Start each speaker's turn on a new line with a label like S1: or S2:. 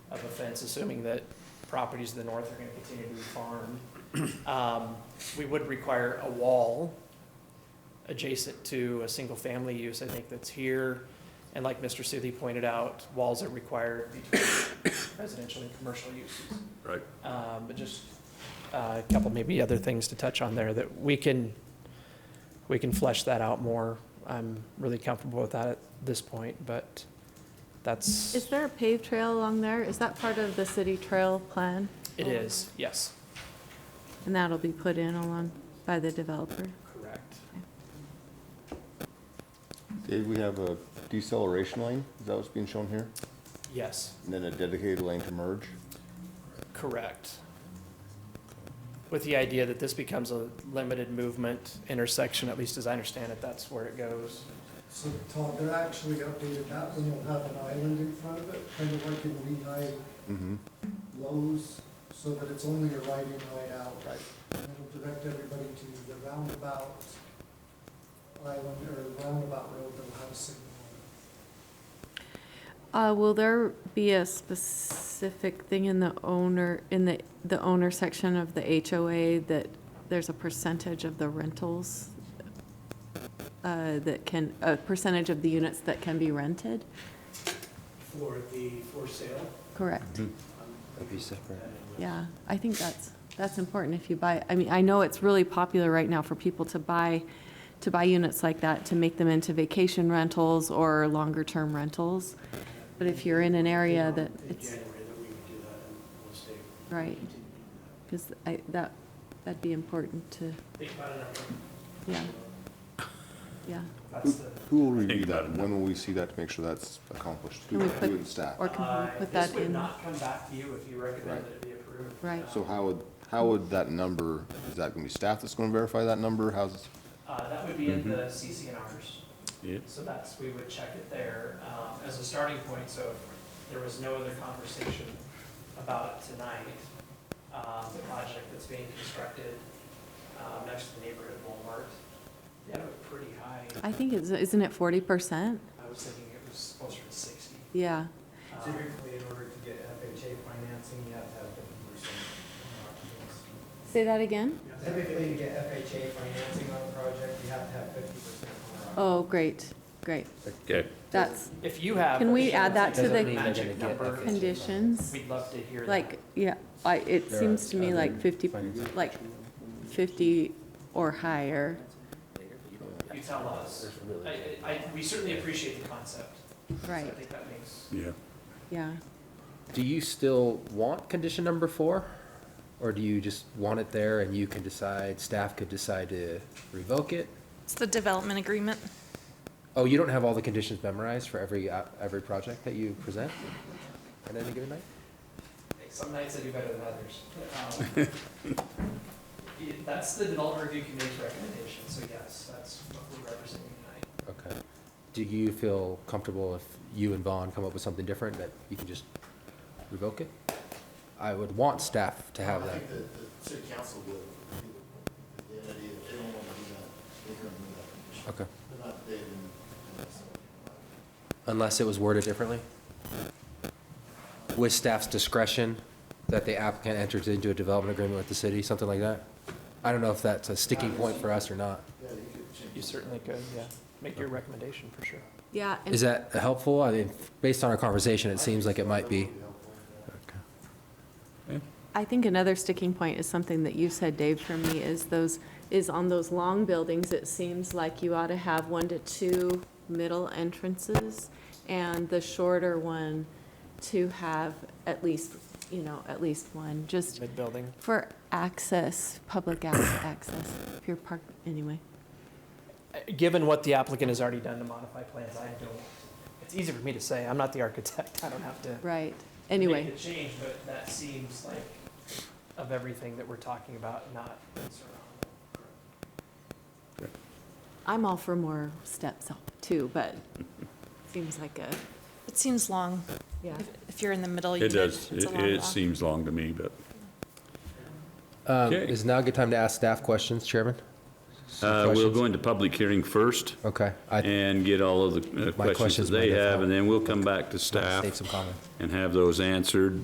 S1: of a fence, assuming that properties to the north are gonna continue to be farmed. Um, We would require a wall adjacent to a single-family use, I think that's here. And like Mr. Seeley pointed out, walls are required between residential and commercial uses.
S2: Right.
S1: Um, But just uh, a couple maybe other things to touch on there that we can, we can flesh that out more. I'm really comfortable with that at this point, but that's,
S3: Is there a paved trail along there? Is that part of the city trail plan?
S1: it is, yes.
S3: And that'll be put in along by the developer?
S1: Correct.
S4: Dave, we have a deceleration lane, is that what's being shown here?
S1: Yes,
S4: And then a dedicated lane to merge?
S1: correct. With the idea that this becomes a limited movement intersection, at least as I understand it, that's where it goes.
S5: So Todd, they're actually updated that one, you'll have an island in front of it, kind of like in Lehigh
S4: Mm-hmm.
S5: Lowe's, so that it's only a right in, right out. Right. And it'll direct everybody to the roundabout island, or roundabout road that'll have a signal.
S3: Uh, will there be a specific thing in the owner, in the, the owner section of the HOA that there's a percentage of the rentals? Uh, that can, a percentage of the units that can be rented?
S6: For the for sale?
S3: Correct,
S6: Mm-hmm. That'd be separate.
S3: yeah. I think that's, that's important if you buy, I mean, I know it's really popular right now for people to buy, to buy units like that, to make them into vacation rentals or longer-term rentals. But if you're in an area that
S6: In
S3: it's-
S6: January that we would do that and we'll stay.
S3: Right. Because I, that, that'd be important to,
S6: Think about it.
S3: yeah, yeah.
S6: That's the.
S4: Who will review
S2: about
S4: that,
S2: it.
S4: when will we see that to make sure that's accomplished? Who
S3: Can we
S4: who
S3: put-
S4: and staff?
S3: Or can
S6: Uh,
S3: we put that
S6: This would
S3: in?
S6: not come back to you if you recommend
S4: Right.
S6: that it be approved.
S3: Right.
S4: So how would, how would that number, is that gonna be staff that's gonna verify that number, how's,
S1: Uh, that would be in
S3: Mm-hmm.
S1: the CCNRs.
S2: Yeah.
S1: So that's, we would check it there um, as a starting point, so if there was no other conversation about it tonight. um, The project that's being constructed um, next to the neighborhood Walmart, they have a pretty high,
S3: I think it's, isn't it forty percent?
S1: I was thinking it was closer to 60.
S3: Yeah,
S1: Um,
S6: Typically, in order to get FHA financing, you have to have fifty percent.
S3: say that again?
S6: Typically, to get FHA financing on a project, you have to have fifty percent
S3: Oh, great, great.
S2: Okay.
S3: That's
S1: If you have.
S3: Can we
S1: if you
S3: add
S1: have
S3: that to
S1: a
S3: the-
S1: Magic number,
S3: conditions,
S1: we'd love to hear that.
S3: like, yeah, I, it seems to me like fifty, like fifty or higher.
S1: You tell us. I- I, I- we certainly appreciate the concept. So I
S3: Right,
S1: think that makes.
S2: Yeah.
S3: yeah.
S7: Do you still want condition number four? Or do you just want it there and you can decide, staff could decide to revoke it?
S8: It's the development agreement.
S7: Oh, you don't have all the conditions memorized for every, uh, every project that you present at any given night?
S1: Some nights I do better than others. Um, yeah, That's the developer review committee's recommendation, so yes, that's what we're representing tonight.
S7: Okay. Do you feel comfortable if you and Vaughn come up with something different, that you can just revoke it? I would want staff to have
S9: I
S7: that.
S9: think that the city council would, the idea, if they don't want to do that, they can remove that condition.
S7: Okay.
S9: They're not, they didn't.
S7: Unless it was worded differently? With staff's discretion, that the applicant enters into a development agreement with the city, something like that? I don't know if that's a sticking point for us or not.
S1: You certainly could, yeah. Make your recommendation for sure.
S3: Yeah, and-
S7: Is that helpful? I mean, based on our conversation, it seems like it might be.
S3: I think another sticking point is something that you said, Dave, for me, is those, is on those long buildings, it seems like you ought to have one to two middle entrances, and the shorter one to have at least, you know, at least one, just
S1: Mid-building.
S3: for access, public ac- access, if you're parked, anyway.
S1: uh, Given what the applicant has already done to modify plans, I don't, it's easy for me to say, I'm not the architect, I don't have to.
S3: Right, anyway,
S1: Make the change, but that seems like of everything that we're talking about, not concern on.
S3: I'm all for more steps too, but seems like a,
S8: It seems long.
S3: yeah.
S8: If- If you're in the middle, you
S2: It
S8: did.
S2: does,
S8: It's a
S2: it,
S8: long
S2: it
S8: walk.
S2: seems long to me, but,
S7: Um,
S2: Okay.
S7: Is now a good time to ask staff questions, Chairman?
S2: uh, we'll
S7: questions?
S2: go into public hearing first
S7: Okay. I
S2: and get all of the uh, questions
S7: questions
S2: that they
S7: might have
S2: have, and then we'll come back to
S7: staff
S2: staff
S7: some comments.
S2: and have those answered.